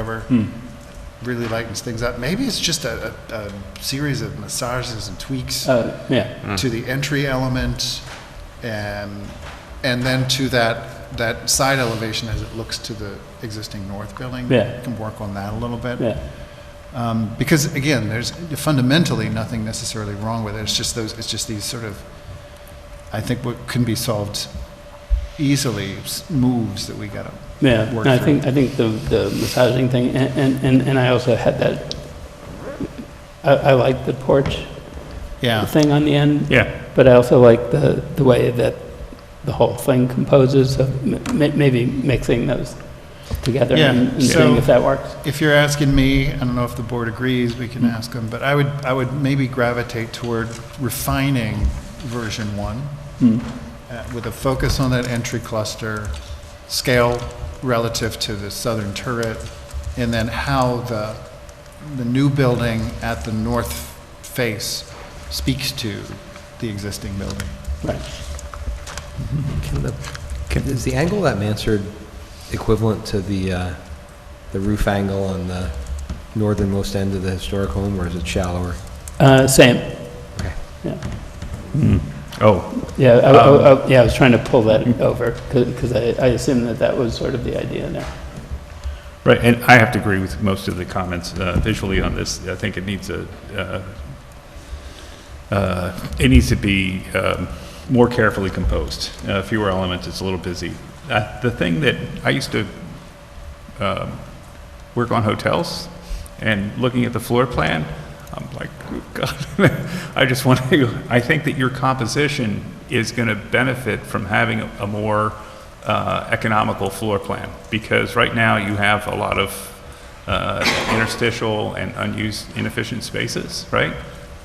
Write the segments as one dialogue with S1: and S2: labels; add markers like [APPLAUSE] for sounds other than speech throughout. S1: over,
S2: Hmm.
S1: really lightens things up. Maybe it's just a, a, a series of massages and tweaks
S2: Uh, yeah,
S1: to the entry element, and and then to that that side elevation as it looks to the existing north building.
S2: Yeah.
S1: can work on that a little bit.
S2: yeah,
S1: Because again, there's fundamentally nothing necessarily wrong with it. It's just those, it's just these sort of, I think what can be solved easily s- moves that we gotta
S2: yeah.
S1: work
S2: And I
S1: through.
S2: think, I think the, the massaging thing, and- and, and, and I also had that, I, I like the porch
S1: Yeah,
S2: thing on the end.
S3: Yeah,
S2: But I also like the, the way that the whole thing composes, of m- ma- maybe mixing those together
S1: Yeah,
S2: and and
S1: so-
S2: seeing if that works.
S1: if you're asking me, I don't know if the board agrees, we can ask them, but I would, I would maybe gravitate toward refining version one uh, with a focus on that entry cluster, scale relative to the southern turret, and then how the, the new building at the north face speaks to the existing building.
S2: Right.
S4: Can the, can, is the angle of that mansard equivalent to the, uh, the roof angle on the northernmost end of the historic home, or is it shallower?
S2: Uh, same,
S4: Okay.
S2: yeah.
S3: oh,
S2: Yeah, I- I, I, yeah, I was trying to pull that over, because I, I assumed that that was sort of the idea there.
S3: right, and I have to agree with most of the comments uh, visually on this. I think it needs a, uh, uh, it needs to be um, more carefully composed, Uh, fewer elements, it's a little busy. Uh, The thing that, I used to um, work on hotels, and looking at the floor plan, I'm like, "Oh, God, [LAUGHS] I just want to, I think that your composition is going to benefit from having a a more uh, economical floor plan, because right now you have a lot of uh, interstitial and unused inefficient spaces, right?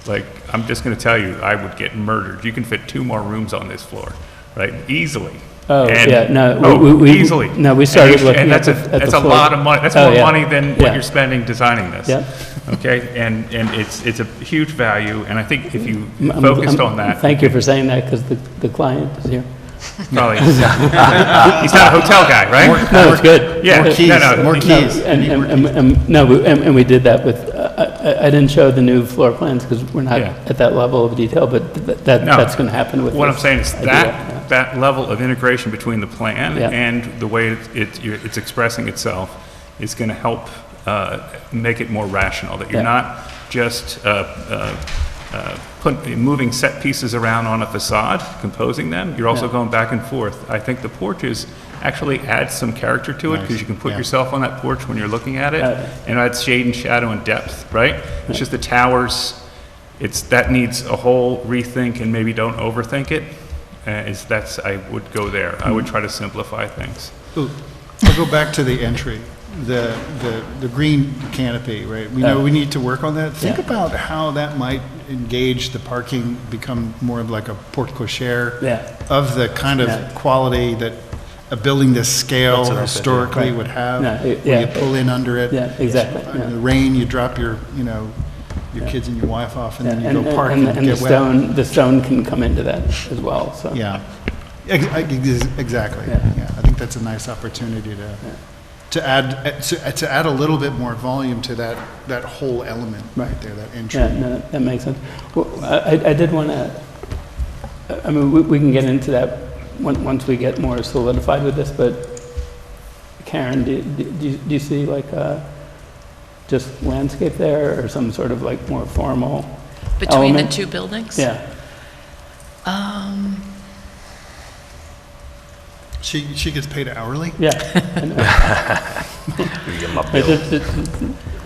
S3: Like, I'm just going to tell you, I would get murdered. You can fit two more rooms on this floor, right? Easily.
S2: Oh,
S3: And-
S2: yeah, no, we-
S3: Oh,
S2: we- we-
S3: easily.
S2: no, we
S3: And
S2: started
S3: you-
S2: looking
S3: And
S2: at
S3: that's a,
S2: the- at the
S3: that's a
S2: floor.
S3: lot of money, that's
S2: Oh,
S3: more
S2: yeah.
S3: money than
S2: Yeah.
S3: what you're spending designing this.
S2: Yeah.
S3: Okay, and, and it's, it's a huge value, and I think if you
S2: I'm- I'm-
S3: focused
S2: I'm-
S3: on that.
S2: Thank you for saying that, because the, the client is here. [LAUGHS]
S3: Probably, he's not a hotel guy, right?
S2: No, it's good.
S3: Yeah,
S1: More keys,
S3: no, no.
S1: more
S2: No,
S1: keys.
S2: and, and- and, and, no, we- and, and we did that with, uh, I, I- I didn't show the new floor plans, because we're not
S3: Yeah.
S2: at that level of detail, but th- that,
S3: No.
S2: that's gonna happen with
S3: What I'm
S2: this
S3: saying is
S2: idea, yeah.
S3: that, that level of integration between the plan
S2: Yeah.
S3: and the way it- it, you're- it's expressing itself is going to help uh, make it more rational, that you're
S2: Yeah.
S3: not just uh, uh, uh, put- moving set pieces around on a facade, composing them, you're also going back and forth. I think the porches actually add some character to it, because you can put
S1: yeah.
S3: yourself on that porch when you're looking at it,
S2: Uh,
S3: and adds shade and shadow and depth, right? It's just the towers, it's, that needs a whole rethink and maybe don't overthink it. Uh, is, that's, I would go there. I would try to simplify things.
S1: I'll go back to the entry, the, the, the green canopy, right? We know we need to work on that. Think
S2: Yeah.
S1: about how that might engage the parking, become more of like a porte cochere
S2: Yeah.
S1: of the kind
S2: Yeah.
S1: of quality that a building this scale
S4: what I said, yeah.
S1: historically would have.
S2: No, it-
S1: Where you
S2: yeah.
S1: pull in under it.
S2: Yeah, exactly, yeah.
S1: In the rain, you drop your, you know, your kids and your wife off and
S2: Yeah,
S1: then you go park
S2: and-
S1: and
S2: And the
S1: get wet.
S2: stone, the stone can come into that as well, so.
S1: Yeah, Ex- ex- exactly.
S2: Yeah.
S1: Yeah, I think that's a nice opportunity to, to add, to to add a little bit more volume to that, that whole element right there, that
S2: Yeah,
S1: entry.
S2: no, that- that makes sense. Well, I, I- I did want to, I mean, we, we can get into that on- once we get more solidified with this, but Karen, do, do do you, do you see like uh just landscape there or some sort of like more formal
S5: Between the
S2: element?
S5: two buildings?
S2: Yeah,
S1: She, she gets paid hourly,
S2: yeah. I know. I just- just-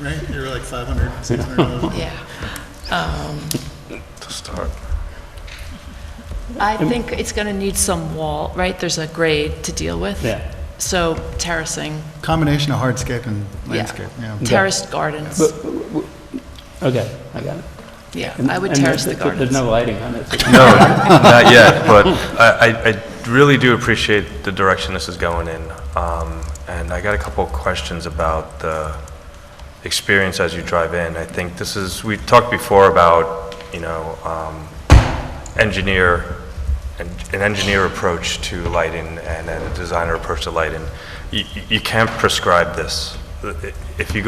S1: right? You're like 500, 600.
S5: Yeah. Um, To start. I think it's going to need some wall, right? There's a grade to deal with.
S2: Yeah.
S5: So terracing,
S1: [LAUGHS] Combination of hardscape and
S5: Yeah.
S1: landscape, yeah.
S5: terraced gardens,
S2: but- Okay, I got it.
S5: yeah,
S2: And-
S5: I would
S2: and
S5: terrace the
S2: there's- There's
S5: gardens.
S2: no lighting on it. so-
S6: No, not yet, but I, I- I really do appreciate the direction this is going in. Um, And I got a couple of questions about the experience as you drive in. I think this is, we talked before about, you know, um, engineer, an an engineer approach to lighting and a designer approach to lighting. You, you- you can't prescribe this, i- if you go